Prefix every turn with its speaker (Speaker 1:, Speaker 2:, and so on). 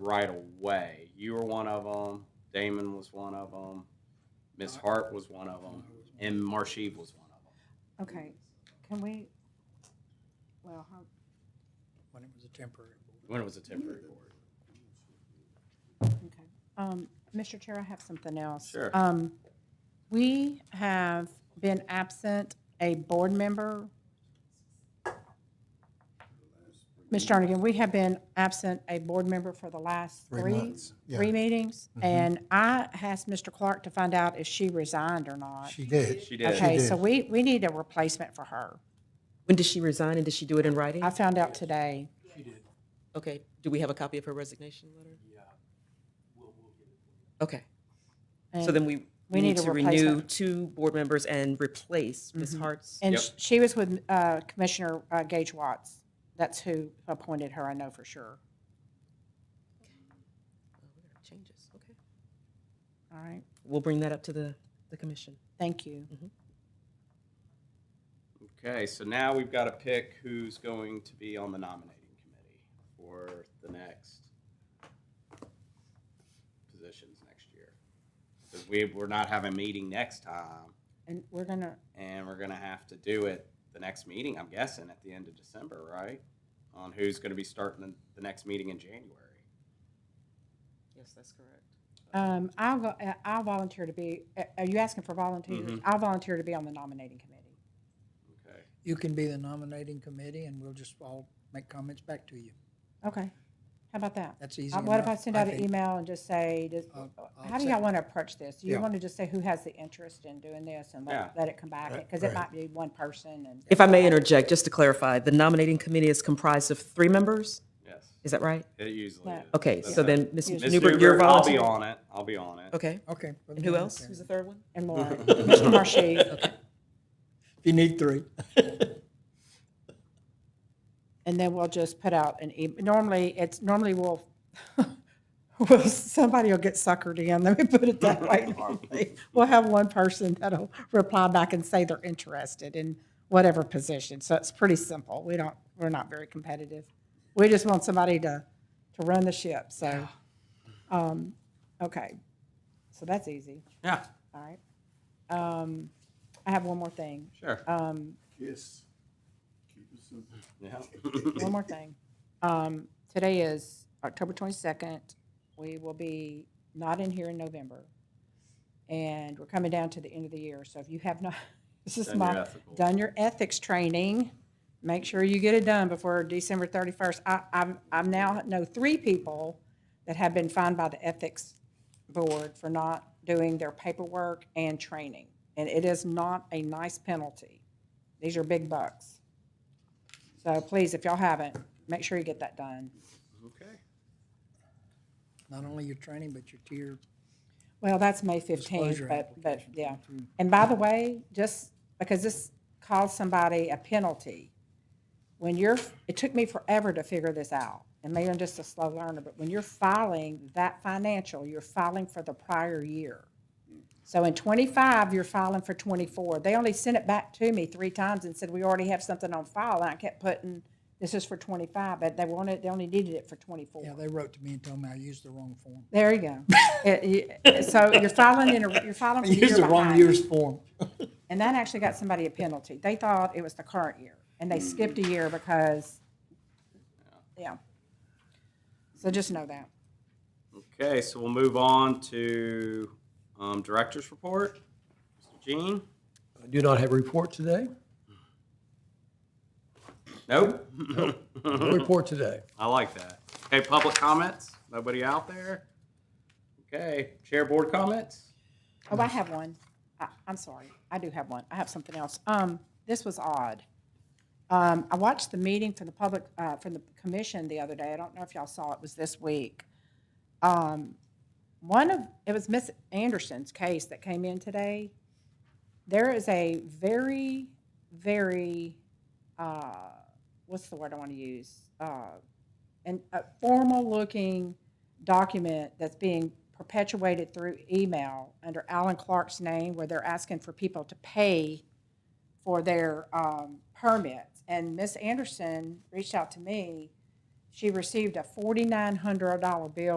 Speaker 1: right away. You were one of them. Damon was one of them. Miss Hart was one of them, and Marsheve was one of them.
Speaker 2: Okay, can we, well, how,
Speaker 3: when it was a temporary board.
Speaker 1: When it was a temporary board.
Speaker 2: okay. Um, Mr. Chair, I have something else.
Speaker 1: Sure.
Speaker 2: Um, we have been absent a board member. Ms. Jernigan, we have been absent a board member for the last
Speaker 4: Three
Speaker 2: three,
Speaker 4: months, yeah. Mm-hmm.
Speaker 2: three meetings. And I asked Mr. Clark to find out if she resigned or not.
Speaker 4: She did.
Speaker 1: She did.
Speaker 2: Okay,
Speaker 4: did.
Speaker 2: so we, we need a replacement for her.
Speaker 5: When did she resign and did she do it in writing?
Speaker 2: I found out today.
Speaker 5: Okay, do we have a copy of her resignation letter? Yeah. Okay, so
Speaker 2: and-
Speaker 5: then we,
Speaker 2: We
Speaker 5: we
Speaker 2: need
Speaker 5: need
Speaker 2: a
Speaker 5: to renew
Speaker 2: replacement.
Speaker 5: two board members and replace Ms. Hart's.
Speaker 2: Mm-hmm. And
Speaker 1: Yep.
Speaker 2: sh- she was with uh, Commissioner uh, Gage Watts. That's who appointed her, I know for sure.
Speaker 5: Changes, okay.
Speaker 2: All right,
Speaker 5: We'll bring that up to the, the commission.
Speaker 2: thank you.
Speaker 3: Mm-hmm.
Speaker 1: Okay, so now we've got to pick who's going to be on the nominating committee for the next positions next year. Because we, we're not having a meeting next time,
Speaker 2: And we're gonna,
Speaker 1: and we're gonna have to do it the next meeting, I'm guessing, at the end of December, right? On who's gonna be starting the, the next meeting in January.
Speaker 5: Yes, that's correct.
Speaker 2: um, I'll, go- uh, I'll volunteer to be, uh, are you asking for
Speaker 5: Mm-hmm.
Speaker 2: volunteers? I'll volunteer to be on the nominating committee.
Speaker 1: Okay,
Speaker 3: You can be the nominating committee and we'll just all make comments back to you.
Speaker 2: Okay, how about that?
Speaker 3: That's easy
Speaker 2: Uh, What if I
Speaker 3: enough,
Speaker 2: send
Speaker 3: I
Speaker 2: out an
Speaker 3: think.
Speaker 2: email and just say, does-
Speaker 3: I'll- I'll
Speaker 2: how do y'all
Speaker 3: second.
Speaker 2: wanna approach this? Do you
Speaker 3: Yeah.
Speaker 2: wanna just say who has the interest in doing this and
Speaker 1: Yeah.
Speaker 2: let, let it come back?
Speaker 4: Right,
Speaker 2: Because it
Speaker 4: right.
Speaker 2: might be one person and.
Speaker 5: If I may interject, just to clarify, the nominating committee is comprised of three members,
Speaker 1: yes,
Speaker 5: is that right?
Speaker 1: it usually
Speaker 2: Yeah.
Speaker 1: is.
Speaker 5: Okay, so then Ms.
Speaker 1: Ms.
Speaker 5: Newbert, you're
Speaker 1: Newbert, I'll be
Speaker 5: volunteering.
Speaker 1: on it, I'll be on it.
Speaker 5: Okay,
Speaker 3: Okay. we'll
Speaker 5: and
Speaker 3: do
Speaker 5: who
Speaker 3: that
Speaker 5: else?
Speaker 3: then.
Speaker 5: Who's the third one?
Speaker 2: And Laura, Mr. Marshy,
Speaker 3: If you need three.
Speaker 2: And then we'll just put out an e, normally, it's, normally we'll, well, somebody will get suckered in, let me put it that way. normally. We'll have one person that'll reply back and say they're interested in whatever position. So it's pretty simple. We don't, we're not very competitive. We just want somebody to, to run the ship, so. um, Okay, so that's easy,
Speaker 1: Yeah,
Speaker 2: all right. Um, I have one more thing,
Speaker 1: sure,
Speaker 2: um,
Speaker 6: Yes. Keep it simple.
Speaker 1: yeah.
Speaker 2: one more thing. Um, today is October twenty-second. We will be not in here in November. And we're coming down to the end of the year, so if you have not, this is
Speaker 1: Done your
Speaker 2: my,
Speaker 1: ethical.
Speaker 2: done your ethics training. Make sure you get it done before December thirty-first. I, I'm, I'm now know three people that have been fined by the ethics board for not doing their paperwork and training. And it is not a nice penalty. These are big bucks. So please, if y'all haven't, make sure you get that done.
Speaker 1: Okay.
Speaker 3: Not only your training, but your tier.
Speaker 2: Well, that's May fifteenth,
Speaker 3: Disclosure
Speaker 2: but, but,
Speaker 3: application. Mm-hmm.
Speaker 2: yeah. And by the way, just because this caused somebody a penalty, when you're, it took me forever to figure this out, and maybe I'm just a slow learner, but when you're filing that financial, you're filing for the prior year. So in twenty-five, you're filing for twenty-four. They only sent it back to me three times and said, we already have something on file, and I kept putting, this is for twenty-five, but they wanted, they only needed it for twenty-four.
Speaker 3: Yeah, they wrote to me and told me I used the wrong form.
Speaker 2: There you go. It- you- So you're filing in a, you're filing for the year
Speaker 3: Used the wrong
Speaker 2: behind.
Speaker 3: year's form.
Speaker 2: And that actually got somebody a penalty. They thought it was the current year, and they skipped a year because, yeah. So just know that.
Speaker 1: Okay, so we'll move on to um, director's report. Mr. Jean?
Speaker 7: I do not have a report today.
Speaker 1: Nope.
Speaker 7: No report today.
Speaker 1: I like that. Okay, public comments? Nobody out there? Okay, chair board comments?
Speaker 2: Oh, I have one. I, I'm sorry. I do have one. I have something else. Um, this was odd. Um, I watched the meeting from the public, uh, from the commission the other day. I don't know if y'all saw it. It was this week. Um, one of, it was Miss Anderson's case that came in today. There is a very, very, uh, what's the word I want to use? Uh, an, a formal-looking document that's being perpetuated through email under Alan Clark's name, where they're asking for people to pay for their um, permits. And Ms. Anderson reached out to me. She received a $4,900 bill